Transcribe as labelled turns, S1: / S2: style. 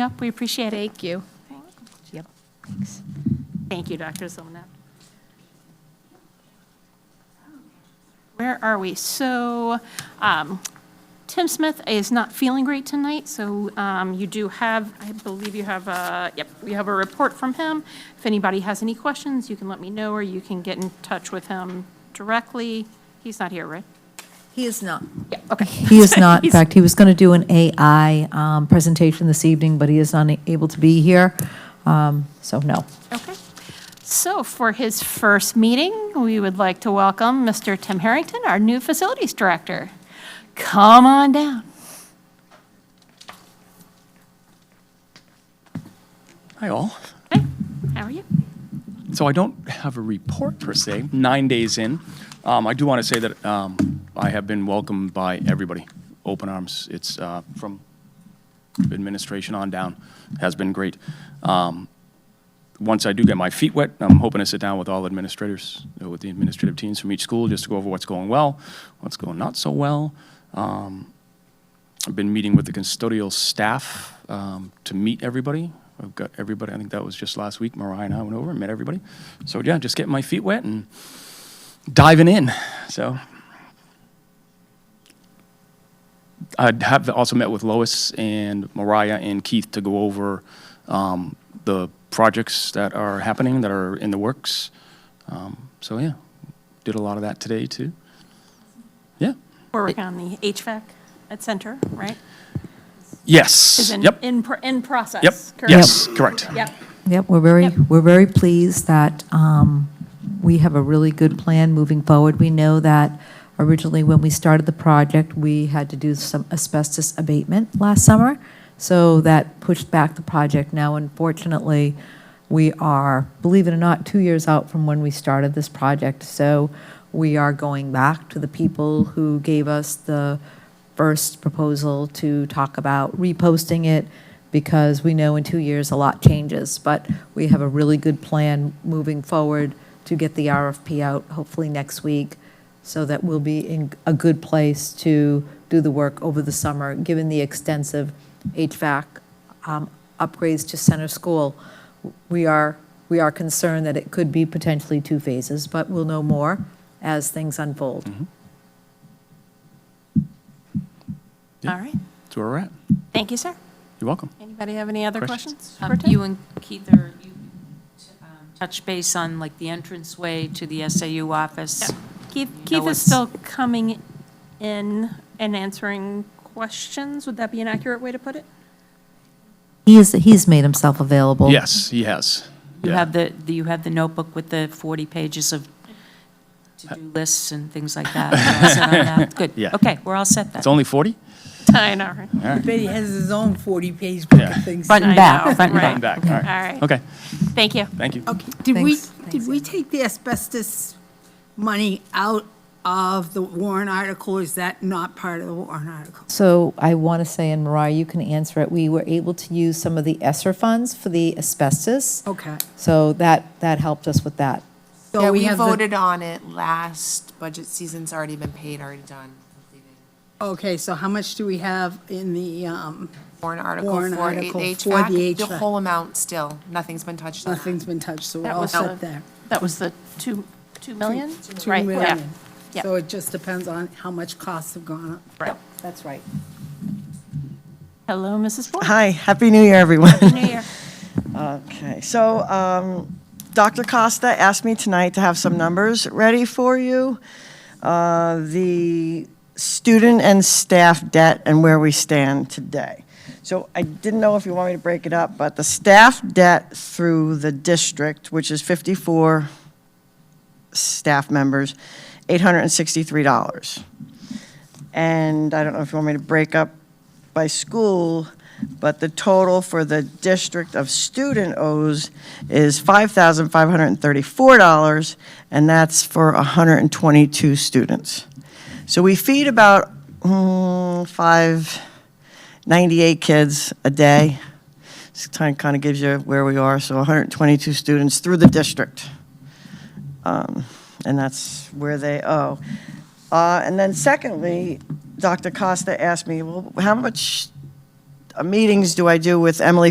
S1: up. We appreciate it.
S2: Thank you.
S1: Yep. Thanks. Thank you, Dr. Zolnap. Where are we? So um, Tim Smith is not feeling great tonight, so um, you do have, I believe you have a, yep, we have a report from him. If anybody has any questions, you can let me know, or you can get in touch with him directly. He's not here, right?
S3: He is not.
S1: Yeah, okay.
S3: He is not. In
S1: He's-
S3: fact, he was going to do an AI um, presentation this evening, but he is unable to be here. Um, So no.
S1: Okay. So for his first meeting, we would like to welcome Mr. Tim Harrington, our new facilities director. Come on down.
S4: Hi, all.
S1: Hey, how are you?
S4: So I don't have a report per se, nine days in. Um, I do want to say that um, I have been welcomed by everybody, open arms. It's uh, from administration on down, has been great. Um, Once I do get my feet wet, I'm hoping to sit down with all administrators, uh, with the administrative teams from each school, just to go over what's going well, what's going not so well. I've been meeting with the custodial staff um, to meet everybody. I've got everybody, I think that was just last week, Mariah and I went over and met everybody. So yeah, just getting my feet wet and diving in, so. I have also met with Lois and Mariah and Keith to go over um, the projects that are happening, that are in the works. Um, So yeah, did a lot of that today too. Yeah,
S1: We're working on the HVAC at Center, right? Is
S4: yes,
S1: in-
S4: yep,
S1: In, pro- in process.
S4: yep,
S1: correct?
S4: yes, correct.
S1: Yep.
S3: Yep, we're very,
S1: Yep.
S3: we're very pleased that um, we have a really good plan moving forward. We know that originally, when we started the project, we had to do some asbestos abatement last summer, so that pushed back the project. Now, unfortunately, we are, believe it or not, two years out from when we started this project, so we are going back to the people who gave us the first proposal to talk about reposting it because we know in two years a lot changes. But we have a really good plan moving forward to get the RFP out hopefully next week so that we'll be in a good place to do the work over the summer, given the extensive HVAC um, upgrades to center school. We are, we are concerned that it could be potentially two phases, but we'll know more as things unfold.
S1: All right.
S4: That's where we're at.
S1: Thank you, sir.
S4: You're welcome.
S1: Anybody have any other
S4: Questions?
S1: questions?
S5: Um,
S1: for Tim?
S5: You and Keith, are you um, touch base on like the entranceway to the SAU office?
S1: Yep. Keith, Keith is
S5: it's-
S1: still coming in and answering questions. Would that be an accurate way to put it?
S3: He's, he's made himself available.
S4: Yes, he has.
S5: You
S4: Yeah.
S5: have the, the- you have the notebook with the 40 pages of to-do lists and things like that? We're all set on that? Good,
S4: Yeah.
S5: okay, we're all set then.
S4: It's only 40?
S1: I know, right?
S6: Betty has his own 40-page book
S4: Yeah.
S6: of things.
S5: Front and
S1: I know,
S5: back, front
S1: right.
S5: and
S4: I'm
S5: back.
S4: back, all
S1: All
S4: right.
S1: right.
S4: Okay,
S1: Thank you.
S4: thank you.
S6: Okay, did we,
S3: Thanks.
S6: did we take the asbestos money out of the Warren article? Is that not part of the Warren article?
S3: So I want to say, and Mariah, you can answer it, we were able to use some of the ESSER funds for the asbestos.
S6: Okay.
S3: So that, that helped us with that.
S6: So
S7: Yeah, we
S6: have the-
S7: voted on it last budget season's already been paid, already done, completed.
S6: Okay, so how much do we have in the, um,
S7: Warrant article
S6: Warrant
S7: for
S6: article
S7: it-
S6: for the
S7: HVAC, the
S6: HVAC.
S7: whole amount still, nothing's been touched on that.
S6: nothing's been touched, so we're
S1: That
S6: all
S1: was
S6: set
S1: the-
S6: there.
S1: That was the two, two million?
S6: Two
S1: Right, yeah.
S6: million.
S1: Yeah.
S6: So it just depends on how much costs have gone up.
S1: Right.
S6: That's right.
S1: Hello, Mrs. Ford.
S8: Hi, Happy New Year, everyone.
S1: New Year.
S8: Okay, so um, Dr. Costa asked me tonight to have some numbers ready for you. Uh, The student and staff debt and where we stand today. So I didn't know if you want me to break it up, but the staff debt through the district, which is 54 staff members, $863. And I don't know if you want me to break up by school, but the total for the district of student owes is $5,534, and that's for 122 students. So we feed about mm, 598 kids a day. Kind of gives you where we are, so 122 students through the district Um, and that's where they oh. owe. Uh, And then secondly, Dr. Costa asked me, well, how much meetings do I do with Emily